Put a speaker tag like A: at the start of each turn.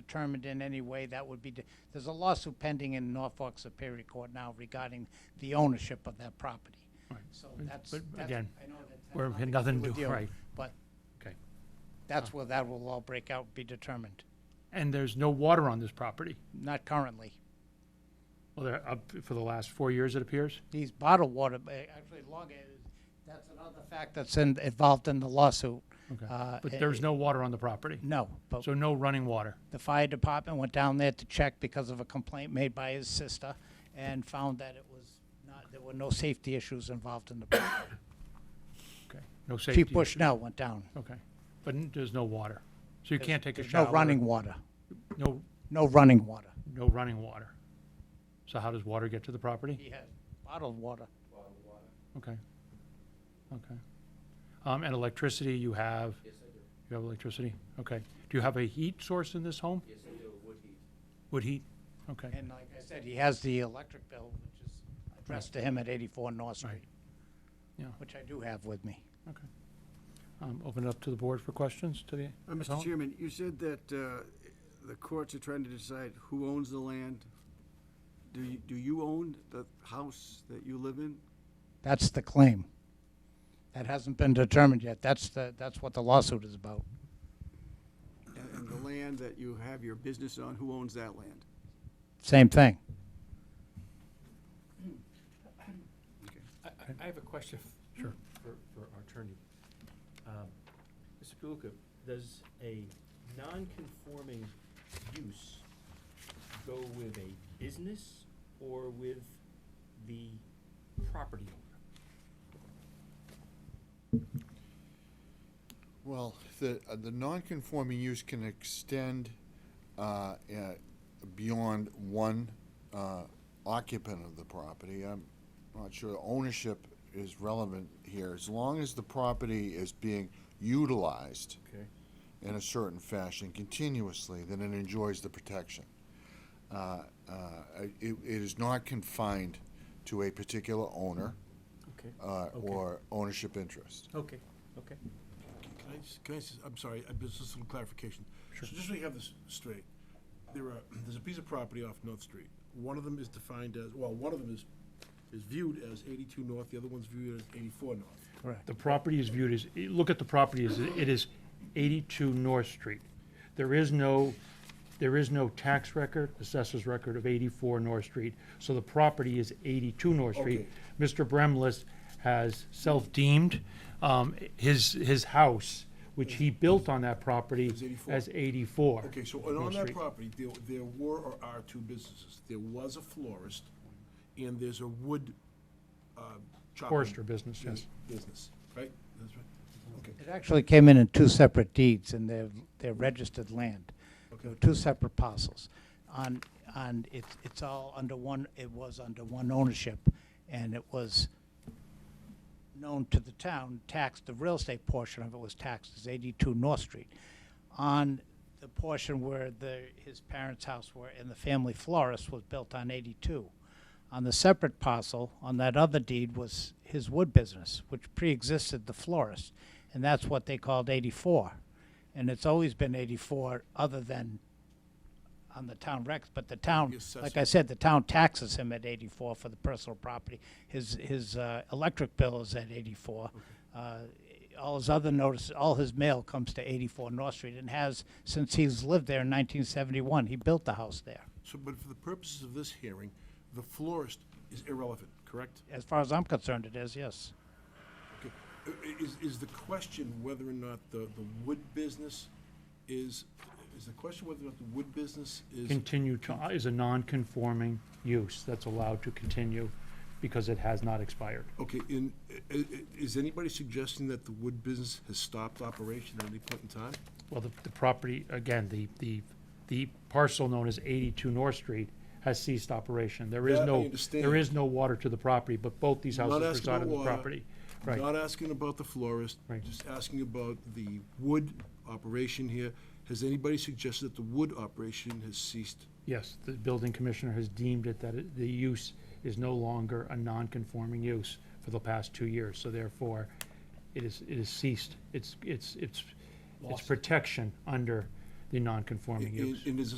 A: determined in any way, that would be, de- there's a lawsuit pending in Norfolk Superior Court now regarding the ownership of that property. So that's,
B: but
A: that's-
B: again,
A: I know that's
B: we're-
A: not
B: had nothing to
A: with
B: do-
A: you,
B: right.
A: But
B: Okay.
A: that's where that will all break out, be determined.
B: And there's no water on this property?
A: Not currently.
B: Well, there, up for the last four years, it appears?
A: These bottled water, but actually longer, that's another fact that's in, involved in the lawsuit.
B: Okay.
A: Uh,
B: But
A: it-
B: there's no water on the property?
A: No, but
B: So no running water?
A: the fire department went down there to check because of a complaint made by his sister and found that it was not, there were no safety issues involved in the project.
B: Okay. No safety?
A: Chief Bushnell went down.
B: Okay. But n- there's no water? So you can't take a
A: There's
B: shower?
A: No running water,
B: No,
A: no running water.
B: no running water? So how does water get to the property?
A: He has bottled water.
B: Okay, okay. Um, and electricity, you have? Yes, I do. You have electricity? Okay. Do you have a heat source in this home? Yes, I do, wood heat. Wood heat? Okay,
A: And like I said, he has the electric bill, which is addressed to him at 84 North Street.
B: Right. Yeah.
A: Which I do have with me.
B: okay. Um, open it up to the board for questions to the?
C: Uh, Mr.
B: appellant?
C: Chairman, you said that uh, the courts are trying to decide who owns the land. Do you, do you own the house that you live in?
A: That's the claim. That hasn't been determined yet. That's the, that's what the lawsuit is about.
C: And- And the land that you have your business on, who owns that land?
A: Same thing.
D: I- I, I have a question. Sure. For, for our attorney. Um, Mr. Kaluka, does a non-conforming use go with a business or with the property owner?
E: Well, the, uh, the non-conforming use can extend uh, uh, beyond one uh, occupant of the property. I'm not sure ownership is relevant here, as long as the property is being utilized
D: Okay.
E: in a certain fashion continuously, then it enjoys the protection. Uh, uh, It, it is not confined to a particular owner
D: Okay.
E: uh,
D: Okay.
E: or ownership interest.
D: Okay, okay.
F: Can I just, can I just, I'm sorry, I just just some clarification. Sure. So just so you have this straight, there are, there's a piece of property off North Street. One of them is defined as, well, one of them is, is viewed as eighty-two north, the other one's viewed as eighty-four north.
B: The property is viewed as, eh, look at the property, as it is 82 North Street. There is no, there is no tax record, assessor's record of 84 North Street, so the property is 82 North Street.
F: Okay.
B: Mr. Bremlis has self-deemed um, his, his house, which he built on that property
F: Is 84.
B: as 84.
F: Okay, so and on
B: North
F: that
B: Street.
F: property, there, there were or are two businesses. There was a florist, and there's a wood, uh, chopping.
B: Forester business, yes.
F: Business, right? That's right. Okay.
A: It actually came in in two separate deeds, and they're, they're registered land. They were
F: Okay.
A: Two separate parcels. On, on, it's, it's all under one, it was under one ownership, and it was known to the town, taxed, the real estate portion of it was taxed as 82 North Street. On the portion where the, his parents' house were and the family florist was built on 82. On the separate parcel, on that other deed, was his wood business, which pre-existed the florist, and that's what they called 84. And it's always been 84, other than on the town recs, but the town,
F: The assessor.
A: like I said, the town taxes him at 84 for the personal property. His, his uh, electric bill is at 84. Uh, All his other notices, all his mail comes to 84 North Street and has since he's lived there in 1971. He built the house there.
F: So, but for the purposes of this hearing, the florist is irrelevant, correct?
A: As far as I'm concerned, it is, yes.
F: Okay. I- i- Is, is the question whether or not the, the wood business is, is the question whether or not the wood business is?
B: Continue to, is a non-conforming use that's allowed to continue because it has not expired.
F: Okay, in, i- i- is anybody suggesting that the wood business has stopped operation at any point in time?
B: Well, the, the property, again, the, the, the parcel known as eighty-two North Street has ceased operation. There is
F: That I
B: no, there
F: understand.
B: is no water to the property, but both these
F: Not
B: houses
F: asking
B: reside
F: about
B: on the
F: water,
B: property. Right,
F: Not asking about the florist,
B: Right.
F: just asking about the wood operation here. Has anybody suggested that the wood operation has ceased?
B: yes, the building commissioner has deemed it that it- the use is no longer a non-conforming use for the past two years, so therefore, it is, it is ceased. It's, it's, it's, it's protection under the non-conforming
F: And
B: use.
F: and is a